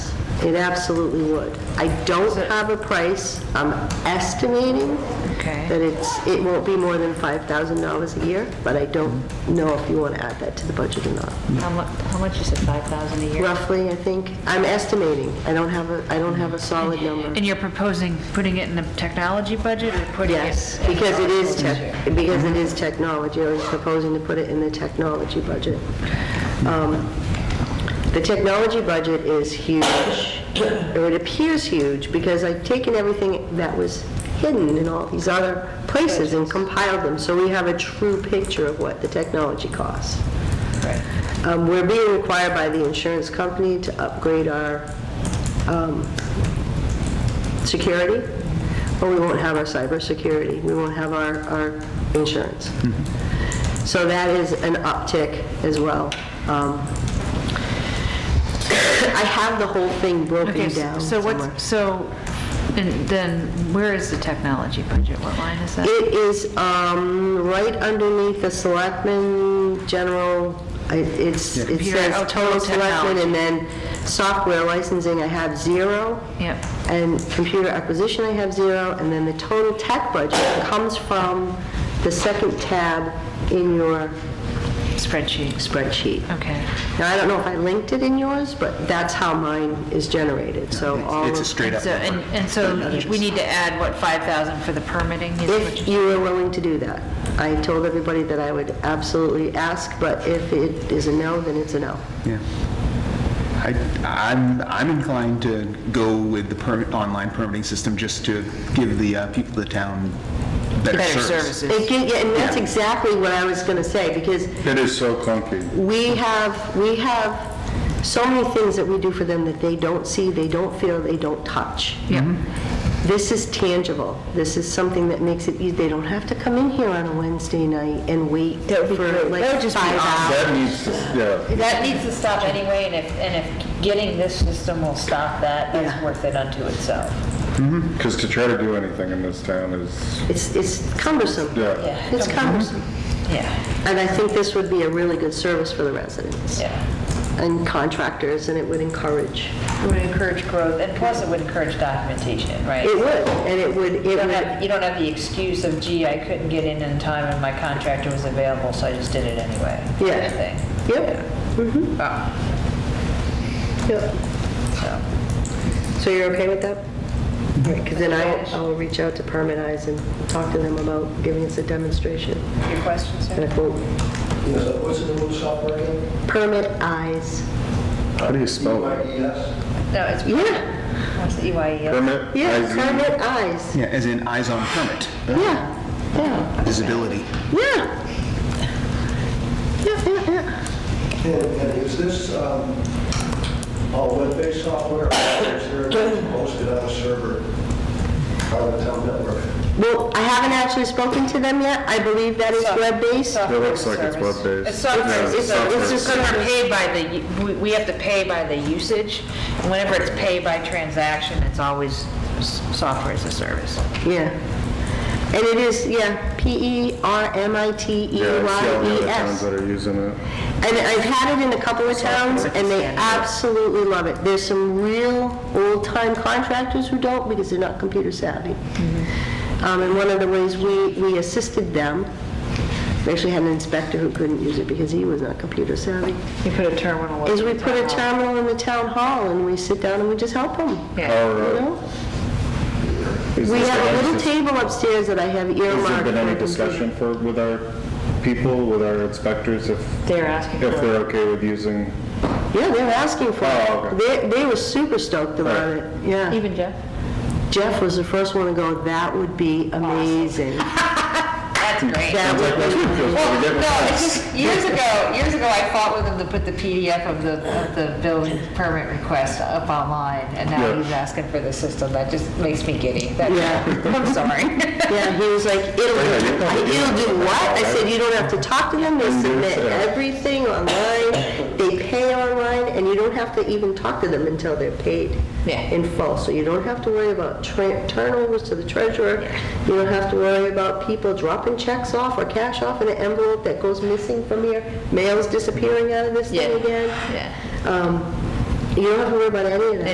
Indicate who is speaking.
Speaker 1: It absolutely would. I don't have a price. I'm estimating
Speaker 2: Okay.
Speaker 1: that it's, it won't be more than $5,000 a year, but I don't know if you want to add that to the budget or not.
Speaker 2: How much, how much is it, 5,000 a year?
Speaker 1: Roughly, I think, I'm estimating. I don't have a, I don't have a solid number.
Speaker 3: And you're proposing putting it in the technology budget or putting it?
Speaker 1: Yes, because it is tech, because it is technology, I was proposing to put it in the technology budget. Um, The technology budget is huge, or it appears huge, because I've taken everything that was hidden in all these other places and compiled them, so we have a true picture of what the technology costs. Um, We're being required by the insurance company to upgrade our um, security, or we won't have our cybersecurity, we won't have our, our insurance.
Speaker 3: Mm-hmm.
Speaker 1: So that is an uptick as well. Um, I have the whole thing
Speaker 3: Okay,
Speaker 1: broken down
Speaker 3: so
Speaker 1: somewhere.
Speaker 3: what's, so, and then where is the technology budget? What line is that?
Speaker 1: It is um, right underneath the selectmen, general, I- it's, it
Speaker 3: Computer, oh,
Speaker 1: says total
Speaker 3: total
Speaker 1: selectmen, and then software licensing, I have zero.
Speaker 3: Yep.
Speaker 1: And computer acquisition, I have zero, and then the total tech budget comes from the second tab in your
Speaker 3: Spreadsheet,
Speaker 1: spreadsheet.
Speaker 3: okay.
Speaker 1: Now, I don't know if I linked it in yours, but that's how mine is generated, so all
Speaker 4: It's a
Speaker 1: of,
Speaker 4: straight up
Speaker 3: So, and,
Speaker 4: number.
Speaker 3: and so we need to add, what, 5,000 for the permitting? is what
Speaker 1: if you were willing to do that. I told everybody that I would absolutely ask, but if it is a no, then it's a no.
Speaker 4: Yeah. I, I'm, I'm inclined to go with the permit, online permitting system just to give the uh, people of the town better
Speaker 2: Better
Speaker 4: service.
Speaker 2: services.
Speaker 1: It get- yeah, And that's
Speaker 4: Yeah.
Speaker 1: exactly what I was gonna say, because
Speaker 5: It is so clunky.
Speaker 1: we have, we have so many things that we do for them that they don't see, they don't feel, they don't touch. Yeah.
Speaker 2: Mm-hmm.
Speaker 1: This is tangible. This is something that makes it easy. They don't have to come in here on a Wednesday night and wait
Speaker 2: That would be
Speaker 1: for
Speaker 2: great. That
Speaker 1: like
Speaker 2: would just be
Speaker 1: five hours.
Speaker 5: That needs to, yeah.
Speaker 2: That needs to stop anyway, and if, and if getting this system will stop that, that's worth it unto itself.
Speaker 5: Because to try to do anything in this town is,
Speaker 1: It's, it's cumbersome.
Speaker 5: yeah.
Speaker 2: Yeah,
Speaker 1: It's cumbersome.
Speaker 2: yeah,
Speaker 1: And I think this would be a really good service for the residents
Speaker 2: yeah.
Speaker 1: and contractors, and it would encourage.
Speaker 2: It would encourage growth, and plus it would encourage documentation, right?
Speaker 1: It would, and it would, it
Speaker 2: You don't
Speaker 1: would,
Speaker 2: have, you don't have the excuse of, gee, I couldn't get in in time and my contractor was available, so I just did it anyway. kind
Speaker 1: Yeah.
Speaker 2: of thing.
Speaker 1: yep,
Speaker 2: Oh,
Speaker 1: yep.
Speaker 2: so.
Speaker 1: So you're okay with that? Because then I, I'll reach out to Permit Eyes and talk to them about giving us a demonstration.
Speaker 2: Your questions, sir?
Speaker 1: And I quote,
Speaker 6: Yes, uh, what's the name of the software again?
Speaker 1: Permit Eyes.
Speaker 5: How do you spell it?
Speaker 6: E EYES?
Speaker 2: No, it's,
Speaker 1: Yeah,
Speaker 2: what's the E EYEL?
Speaker 5: Permit?
Speaker 1: yeah,
Speaker 5: IZ?
Speaker 1: Permit Eyes.
Speaker 4: Yeah, as in eyes on permit,
Speaker 1: Yeah, yeah,
Speaker 4: visibility.
Speaker 1: yeah. Yeah, yeah, yeah.
Speaker 6: And and is this um, all web-based software, or is there hosted on a server on the town network?
Speaker 1: Well, I haven't actually spoken to them yet. I believe that is
Speaker 2: Soft-
Speaker 1: web-based.
Speaker 2: soft-
Speaker 5: It looks like it's
Speaker 2: Service.
Speaker 5: web-based.
Speaker 2: It's software,
Speaker 5: Yeah,
Speaker 2: it's, it's
Speaker 5: software.
Speaker 2: just sort of paid by the, we- we have to pay by the usage. And Whenever it's paid by transaction, it's always s- software as a service.
Speaker 1: Yeah. And it is, yeah, E
Speaker 5: Yeah, I see all the other towns
Speaker 1: P-E-R-M-I-T-E-Y-E-S.
Speaker 5: that are using it.
Speaker 1: E And I've had it in a couple of towns, and they absolutely love it. There's some real old-time contractors who don't because they're not computer savvy. Um, And one of the ways we, we assisted them, we actually had an inspector who couldn't use it because he was not computer savvy,
Speaker 2: You put a terminal.
Speaker 1: is we put a terminal in the town hall, and we sit down and we just help them, you
Speaker 2: Yeah.
Speaker 5: All right.
Speaker 1: know?
Speaker 5: Is
Speaker 1: We
Speaker 5: this
Speaker 1: have a
Speaker 5: gonna-
Speaker 1: little table upstairs that I have earmarked.
Speaker 5: Has there been any
Speaker 1: for computer-
Speaker 5: discussion for, with our people, with our inspectors, if,
Speaker 2: They're asking
Speaker 5: if they're okay with using?
Speaker 1: Yeah, they were asking for
Speaker 5: Oh,
Speaker 1: it. They,
Speaker 5: okay.
Speaker 1: they were super stoked about
Speaker 5: Right.
Speaker 1: it, yeah.
Speaker 2: Even Jeff?
Speaker 1: Jeff was the first one to go, that would be amazing.
Speaker 2: That's great.
Speaker 1: That would be,
Speaker 2: Well, no, it's just, years ago, years ago, I fought with him to put the PDF of the, of the building permit request up online, and now
Speaker 5: Yeah.
Speaker 2: he's asking for the system, that just makes me giddy. That-
Speaker 1: Yeah.
Speaker 2: I'm sorry.
Speaker 1: yeah, he was like, it'll,
Speaker 5: yeah,
Speaker 1: do-
Speaker 5: you're probably doing
Speaker 1: it'll do
Speaker 5: something
Speaker 1: what? I
Speaker 5: right.
Speaker 1: said, you don't have to talk to them, they
Speaker 5: do
Speaker 1: submit
Speaker 5: it.
Speaker 1: everything online, they pay online, and you don't have to even talk to them until they're paid
Speaker 2: Yeah.
Speaker 1: in full. So you don't have to worry about tra- turnovers to the treasurer, you don't have to worry about people dropping checks off or cash off in an envelope that goes missing from here, mail's disappearing out of this
Speaker 2: Yeah.
Speaker 1: thing again.
Speaker 2: Yeah.
Speaker 1: Um, You don't have to worry about any of that.